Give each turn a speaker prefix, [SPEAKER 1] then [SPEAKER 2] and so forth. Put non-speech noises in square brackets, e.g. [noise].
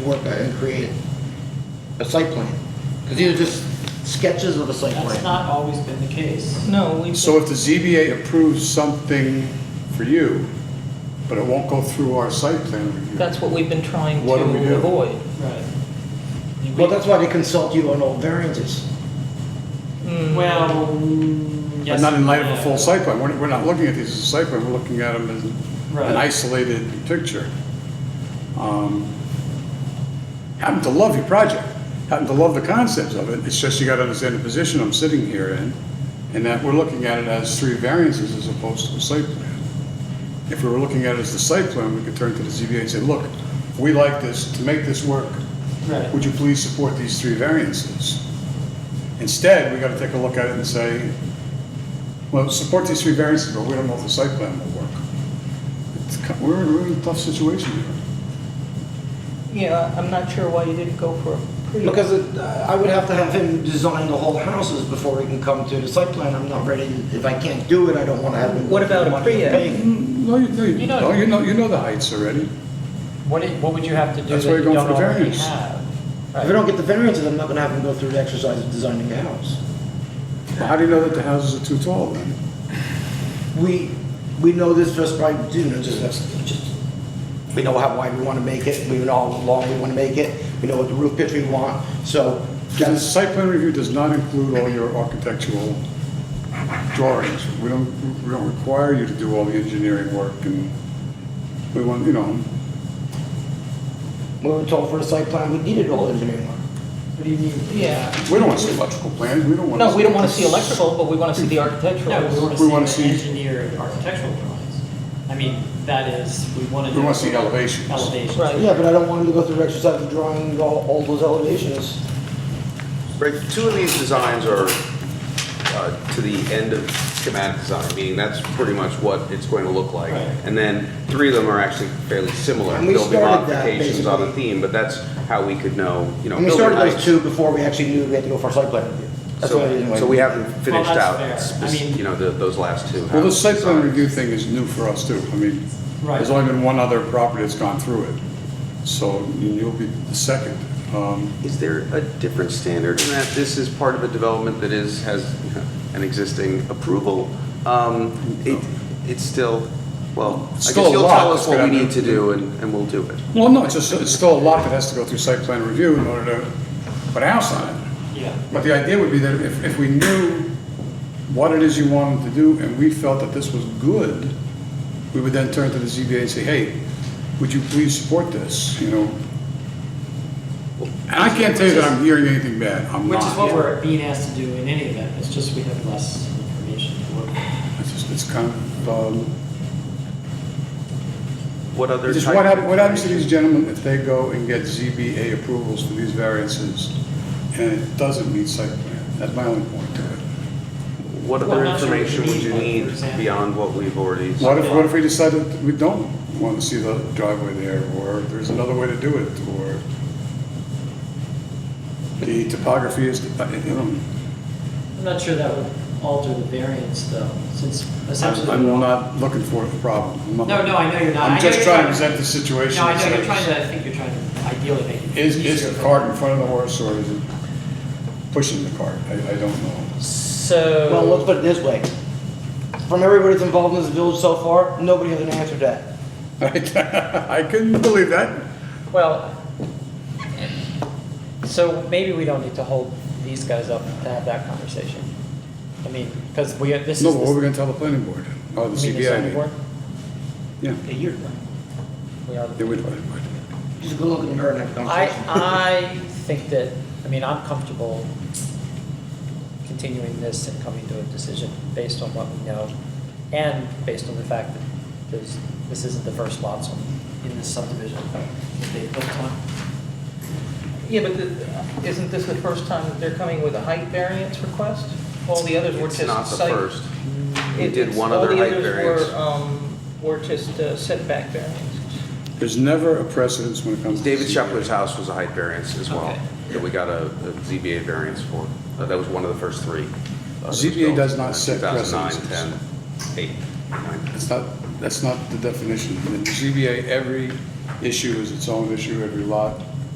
[SPEAKER 1] work and create a site plan. Because these are just sketches of a site
[SPEAKER 2] That's
[SPEAKER 1] plan.
[SPEAKER 2] not always been the case.
[SPEAKER 3] No, we,
[SPEAKER 4] So if the ZBA approves something for you, but it won't go through our site plan review?
[SPEAKER 3] that's what we've been trying
[SPEAKER 4] What do we do?
[SPEAKER 3] to avoid.
[SPEAKER 2] Right.
[SPEAKER 1] Well, that's why they consult you on all variances.
[SPEAKER 3] Mm.
[SPEAKER 2] Well, mm, yes.
[SPEAKER 4] But not in light of a
[SPEAKER 2] yeah.
[SPEAKER 4] full site plan, we're, we're not looking at these as a site plan, we're looking at them as
[SPEAKER 2] Right.
[SPEAKER 4] an isolated picture. Um, Happen to love your project, happen to love the concepts of it, it's just you gotta understand the position I'm sitting here in, and that we're looking at it as three variances as opposed to a site plan. If we were looking at it as the site plan, we could turn to the ZBA and say, look, we like this, to make this work,
[SPEAKER 2] Right.
[SPEAKER 4] would you please support these three variances? Instead, we gotta take a look at it and say, well, support these three variances, but we don't know if the site plan will work. It's ki- We're in a really tough situation here.
[SPEAKER 3] Yeah, I'm not sure why you didn't go for a pre.
[SPEAKER 1] Because it- I would have to have him design the whole houses before he can come to the site plan. I'm not ready, if I can't do it, I don't want to have him.
[SPEAKER 3] What about a
[SPEAKER 1] money to
[SPEAKER 3] pre-ed?
[SPEAKER 1] pay.
[SPEAKER 4] Mm, No, you, no, you
[SPEAKER 2] You know-
[SPEAKER 4] no, you know, you know the heights already.
[SPEAKER 2] What, i- what would you have to do
[SPEAKER 4] That's
[SPEAKER 2] that
[SPEAKER 4] why
[SPEAKER 2] you
[SPEAKER 4] you're
[SPEAKER 2] don't
[SPEAKER 4] going for the
[SPEAKER 2] already
[SPEAKER 4] variance.
[SPEAKER 2] have?
[SPEAKER 1] If I don't get the variances, I'm not going to have him go through the exercise of designing a house.
[SPEAKER 4] Well, How do you know that the houses are too tall then?
[SPEAKER 1] We, we know this just by, you know, just, just, we know how wide we want to make it, we know how long we want to make it, we know what the roof pitch we want, so
[SPEAKER 4] The
[SPEAKER 1] that's,
[SPEAKER 4] site plan review does not include all your architectural drawings. We don't, we don't require you to do all the engineering work and we want, you know,
[SPEAKER 1] we were told for the site plan, we needed all engineering work.
[SPEAKER 2] What do you mean?
[SPEAKER 3] Yeah.
[SPEAKER 4] we don't want to see electrical plans, we don't want to.
[SPEAKER 3] No, we don't want to see electrical, but we want to see the
[SPEAKER 2] No, we
[SPEAKER 3] architectural.
[SPEAKER 4] We wanna
[SPEAKER 2] want to see
[SPEAKER 4] see-
[SPEAKER 2] the engineered architectural drawings. I mean, that is, we want to.
[SPEAKER 4] We wanna see elevations.
[SPEAKER 2] Elevations.
[SPEAKER 3] Right.
[SPEAKER 1] Oh, Yeah, but I don't want him to go through the exercise of drawing all, all those elevations.
[SPEAKER 5] Right, two of these designs are uh, to the end of schematic design, meaning that's pretty much what it's going to look like.
[SPEAKER 2] Right.
[SPEAKER 5] And then three of them are actually fairly similar.
[SPEAKER 1] And we
[SPEAKER 5] There'll be
[SPEAKER 1] started that,
[SPEAKER 5] modifications on the
[SPEAKER 1] basically.
[SPEAKER 5] theme, but that's how we could know, you know,
[SPEAKER 1] And we
[SPEAKER 5] building
[SPEAKER 1] started those
[SPEAKER 5] heights.
[SPEAKER 1] two before we actually knew we had to go for a site plan review. That's what I didn't
[SPEAKER 5] So,
[SPEAKER 1] like.
[SPEAKER 5] so we haven't finished
[SPEAKER 2] that's
[SPEAKER 5] out,
[SPEAKER 2] fair.
[SPEAKER 5] spec-
[SPEAKER 2] I mean-
[SPEAKER 5] you know, the- those last two.
[SPEAKER 4] Well, the site plan
[SPEAKER 5] designs.
[SPEAKER 4] review thing is new for us too. I mean,
[SPEAKER 2] Right.
[SPEAKER 4] there's only been one other property that's gone through it. So you'll be the second. Um,
[SPEAKER 5] Is there a different standard in that this is part of a development that is, has an existing approval? Um, It, it's still, well, I guess
[SPEAKER 4] Still a
[SPEAKER 5] you'll
[SPEAKER 4] lot
[SPEAKER 5] tell us
[SPEAKER 4] that's
[SPEAKER 5] what we
[SPEAKER 4] gonna
[SPEAKER 5] need to
[SPEAKER 4] happen.
[SPEAKER 5] do and, and we'll do it.
[SPEAKER 4] Well, no, it's just, it's still a lot that has to go through site plan review in order to put a house on it.
[SPEAKER 2] Yeah.
[SPEAKER 4] But the idea would be that if, if we knew what it is you wanted to do and we felt that this was good, we would then turn to the ZBA and say, hey, would you please support this, you know? And I can't tell you that I'm hearing anything bad, I'm not.
[SPEAKER 2] Which is what we're being asked to do in any event, it's just we have less information to work with.
[SPEAKER 4] It's just, it's kind of, um,
[SPEAKER 5] What other?
[SPEAKER 4] Just
[SPEAKER 5] type
[SPEAKER 4] what
[SPEAKER 5] of
[SPEAKER 4] happens, what happens to these
[SPEAKER 5] information?
[SPEAKER 4] gentlemen if they go and get ZBA approvals for these variances and it doesn't meet site plan? That's my only point to it.
[SPEAKER 5] What
[SPEAKER 2] Well,
[SPEAKER 5] other
[SPEAKER 2] I'm not sure what
[SPEAKER 5] information
[SPEAKER 2] you
[SPEAKER 5] would you
[SPEAKER 2] mean by, for
[SPEAKER 5] need
[SPEAKER 2] example.
[SPEAKER 5] beyond what we've already?
[SPEAKER 4] What if, what if we decide that we don't want to see the driveway there, or there's another way to do it, or the topography is, uh, you know,
[SPEAKER 2] I'm not sure that would alter the variance though, since
[SPEAKER 4] I'm
[SPEAKER 2] essentially.
[SPEAKER 4] I'm not looking for a problem. I'm not-
[SPEAKER 2] No, no, I know you're not. I
[SPEAKER 4] I'm
[SPEAKER 2] know
[SPEAKER 4] just
[SPEAKER 2] you're
[SPEAKER 4] trying to
[SPEAKER 2] trying-
[SPEAKER 4] present the situation.
[SPEAKER 2] No, I know,
[SPEAKER 4] that
[SPEAKER 2] you're trying to, I think you're trying to ideally make it.
[SPEAKER 4] Is, is
[SPEAKER 2] easier
[SPEAKER 4] the
[SPEAKER 2] for-
[SPEAKER 4] cart in front of the horse, or is it pushing the cart? I, I don't know.
[SPEAKER 3] So.
[SPEAKER 1] Well, let's put it this way. From everybody that's involved in this village so far, nobody has an answer to that.
[SPEAKER 4] [laughs] I couldn't believe that.
[SPEAKER 3] Well, so maybe we don't need to hold these guys up to have that conversation. I mean, because we, this is.
[SPEAKER 4] No, what
[SPEAKER 3] this-
[SPEAKER 4] are we gonna tell the planning board? Oh, the
[SPEAKER 3] I mean, zoning
[SPEAKER 4] CBA.
[SPEAKER 3] board.
[SPEAKER 4] Yeah,
[SPEAKER 1] A year.
[SPEAKER 3] We are.
[SPEAKER 4] they would, would- would.
[SPEAKER 1] Just go look in the mirror and have a
[SPEAKER 3] I,
[SPEAKER 1] conversation.
[SPEAKER 2] uh,
[SPEAKER 3] I think that, I mean, I'm comfortable continuing this and coming to a decision based on what we know and based on the fact that there's, this isn't the first lots on, in this subdivision that they built on. Yeah, but the- isn't this the first time that they're coming with a height variance request? All the others were
[SPEAKER 5] It's
[SPEAKER 3] just
[SPEAKER 5] not the
[SPEAKER 3] site-
[SPEAKER 5] first. We
[SPEAKER 3] it-
[SPEAKER 5] did
[SPEAKER 3] it's-
[SPEAKER 5] one other height
[SPEAKER 3] All the
[SPEAKER 5] variance.
[SPEAKER 3] others were, um, were just uh, setback variances.
[SPEAKER 4] There's never a precedence when it comes to.
[SPEAKER 5] David
[SPEAKER 4] CBA.
[SPEAKER 5] Shepler's house was a height variance as well,
[SPEAKER 3] Okay.
[SPEAKER 5] that we got a a ZBA variance for. Uh, That was one of the first three. uh, that was
[SPEAKER 4] ZBA
[SPEAKER 5] built
[SPEAKER 4] does not
[SPEAKER 5] in
[SPEAKER 4] set
[SPEAKER 5] 2009,
[SPEAKER 4] precedents.
[SPEAKER 5] 10, 8, 9.
[SPEAKER 4] It's not, that's not the definition. In the CBA, every issue is its own issue, every lot